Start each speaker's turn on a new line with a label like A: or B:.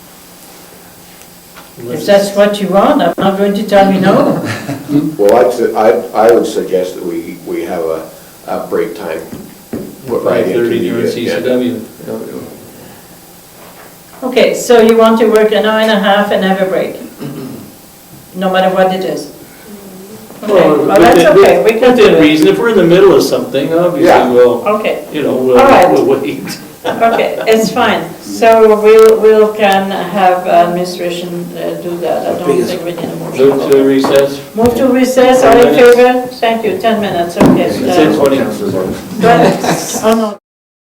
A: If that's what you want, I'm not going to tell you no.
B: Well, I'd su- I, I would suggest that we, we have a, a break time. put right into
C: 5:30 during
B: the agenda.
C: CCW.
A: Okay, so you want to work an hour and a half and have a break? No matter what it is? Okay,
C: Well,
A: well, that's
C: within-
A: okay, we can do
C: Within
A: it.
C: reason, if we're in the middle of something, obviously,
B: Yeah.
C: we'll,
A: Okay,
C: you know,
A: All right.
C: we'll- we'll wait.
A: okay, it's fine. So we'll, we'll can have administration uh, do that, I don't think we need a motion.
C: Move to recess,
A: Move to recess, all
C: Ten
A: in
C: minutes.
A: favor? Thank you, 10 minutes, okay.
C: It's in
A: so-
C: 20.
A: But- Oh, no.